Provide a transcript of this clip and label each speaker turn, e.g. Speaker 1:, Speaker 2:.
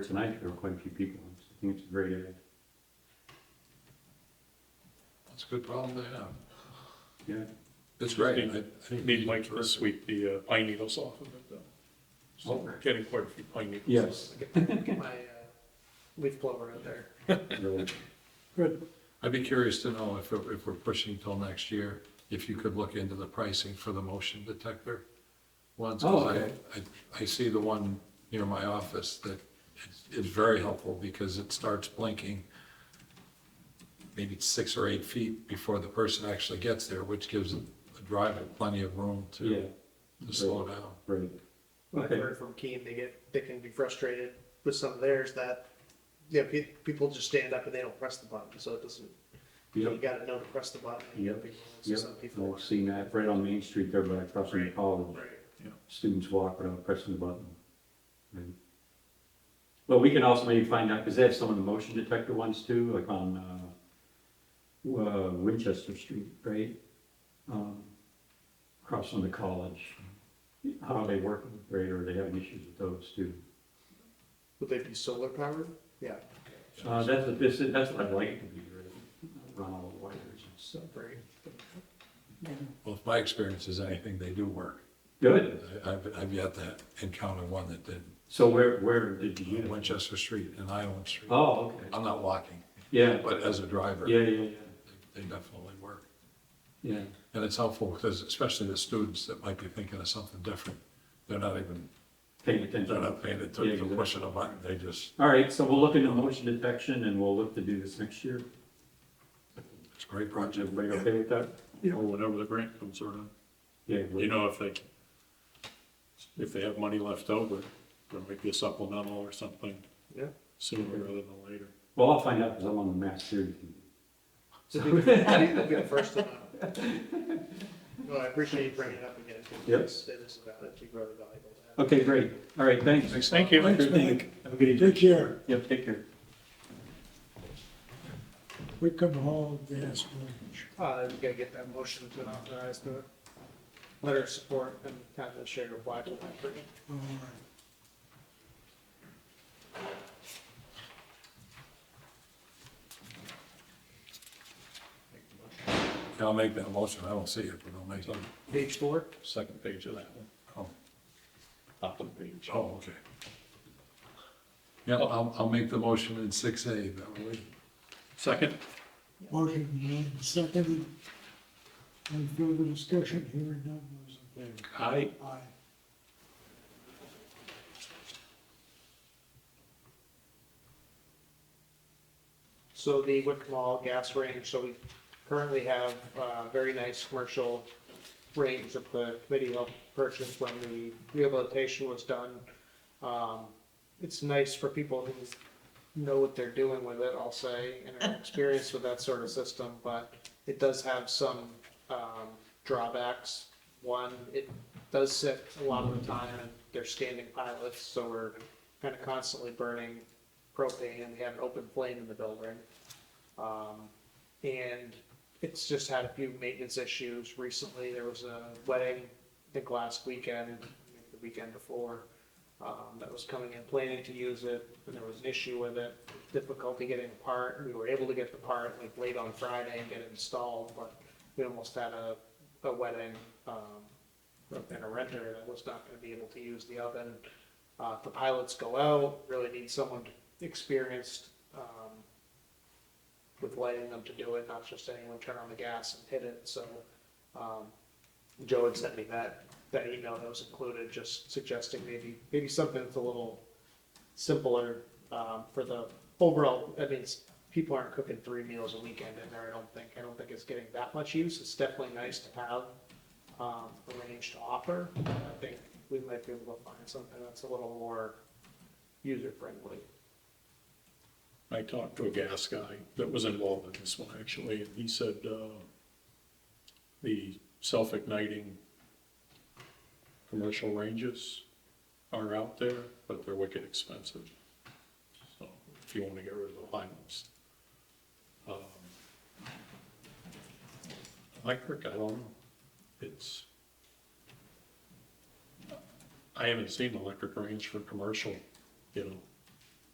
Speaker 1: tonight, there were quite a few people. I think it's uh, a great idea.
Speaker 2: That's a good problem to have.
Speaker 1: Yeah,
Speaker 2: That's great. I- I think
Speaker 3: Need
Speaker 2: we
Speaker 3: Mike
Speaker 2: should-
Speaker 3: to sweep the uh, pine needles off of it, though. So we're getting quite a few pine needles.
Speaker 1: yes.
Speaker 4: Get my uh, leaf blower out there.
Speaker 1: Really.
Speaker 2: I'd be curious to know if, we're- if we're pushing till next year, if you could look into the pricing for the motion detector ones. 'cause
Speaker 1: Oh,
Speaker 2: I-
Speaker 1: okay.
Speaker 2: I, I see the one near my office that is- is very helpful because it starts blinking maybe six or eight feet before the person actually gets there, which gives the driver plenty of room
Speaker 1: Yeah,
Speaker 2: to, to slow down.
Speaker 1: right.
Speaker 4: I've
Speaker 1: Okay.
Speaker 4: heard from Keene, they get, they can be frustrated with some of theirs that, yeah, pe- people just stand up and they don't press the button, so it doesn't, you
Speaker 1: Yep,
Speaker 4: gotta know to press the button. and
Speaker 1: Yep.
Speaker 4: people- so
Speaker 1: yep.
Speaker 4: Some people.
Speaker 1: I've seen that right on Main Street there, but I crossed the
Speaker 4: Right.
Speaker 1: college.
Speaker 4: Right.
Speaker 1: Students walk without pressing the button. Right. Well, we can also maybe find out, because they have some of the motion detector ones too, like on, uh, uh, Winchester Street, right? Um, Across from the college. How are they working, right? Or are they having issues with those too?
Speaker 4: Would they be solar powered? Yeah,
Speaker 1: Uh, that's what this, is- that's what I'd like it to be, right? Run all the wires and
Speaker 4: so
Speaker 1: stuff.
Speaker 4: great.
Speaker 2: Well, if my experience is anything, they do work.
Speaker 1: Good.
Speaker 2: I- I've, I've yet to encounter one that didn't.
Speaker 1: So where, where did you get it?
Speaker 2: Winchester Street and Island Street.
Speaker 1: Oh, okay.
Speaker 2: I'm not walking,
Speaker 1: Yeah,
Speaker 2: but as a driver,
Speaker 1: yeah,
Speaker 2: they
Speaker 1: yeah,
Speaker 2: they definitely work.
Speaker 1: yeah, yeah.
Speaker 2: And it's helpful because especially the students that might be thinking of something different, they're not even,
Speaker 1: Paying
Speaker 2: they're
Speaker 1: attention.
Speaker 2: not paying
Speaker 1: Yeah,
Speaker 2: attention to
Speaker 1: exactly.
Speaker 2: pushing a button, they just,
Speaker 1: All right, so we'll look into motion detection and we'll look to do this next year.
Speaker 2: it's a great
Speaker 1: Is
Speaker 2: project.
Speaker 1: everybody okay with that?
Speaker 3: Or whenever the grant comes around.
Speaker 1: Yeah.
Speaker 3: You know, if they, if they have money left over, there might be a supplemental or something
Speaker 4: Yeah.
Speaker 3: sooner rather than later.
Speaker 1: Well, I'll find out because I'm on the mass series.
Speaker 4: So they would be the first to know. No, I appreciate you bringing it up again. 'cause
Speaker 1: Yep.
Speaker 4: this- This is valid, it'd be really valuable to have.
Speaker 1: Okay, great. All right, thanks.
Speaker 3: Thank you.
Speaker 5: Thanks, Mike.
Speaker 1: Have a good evening.
Speaker 5: Take care.
Speaker 1: Yep, take care.
Speaker 5: We come home, yes.
Speaker 4: Uh, we gotta get that motion to authorize the letter of support and kind of share of why.
Speaker 5: All right.
Speaker 2: Yeah, I'll make that motion, I don't see it, but I'll make it.
Speaker 4: Page four?
Speaker 3: Second page of that one,
Speaker 2: Oh,
Speaker 3: top of the page.
Speaker 2: oh, okay. Yeah, I'll, I'll make the motion in six A, that way.
Speaker 3: Second,
Speaker 5: Motion made, seconded. Any further discussion here and none, those in favor?
Speaker 3: aye.
Speaker 5: Aye.
Speaker 4: So the Wickmall gas range, so we currently have a very nice commercial range that the committee helped purchase when the rehabilitation was done. Um, It's nice for people who know what they're doing with it, I'll say, and are experienced with that sort of system, but it does have some um, drawbacks. One, it does sit a lot of the time, and they're standing pilots, so we're kind of constantly burning propane, and we have an open flame in the building. Um, and it's just had a few maintenance issues recently. There was a wedding, I think last weekend, maybe the weekend before, um, that was coming in planning to use it, and there was an issue with it, difficulty getting a part. We were able to get the part like late on Friday and get it installed, but we almost had a, a wedding, um, and a renter that was not gonna be able to use the oven. Uh, the pilots go out, really need someone experienced, um, with lighting them to do it, not just anyone turn on the gas and hit it, so, um, Joe had sent me that, that email that was included, just suggesting maybe, maybe something that's a little simpler, um, for the overall, I mean, it's- people aren't cooking three meals a weekend in there, I don't think, I don't think it's getting that much use, it's definitely nice to have, um, a range to offer, I think we might be able to find something that's a little more user-friendly.
Speaker 3: I talked to a gas guy that was involved in this one, actually, and he said, uh, the self-igniting commercial ranges are out there, but they're wicked expensive. So if you wanna get rid of the high ones. Um, Electric, I don't know, it's, I haven't seen an electric range for commercial, you know,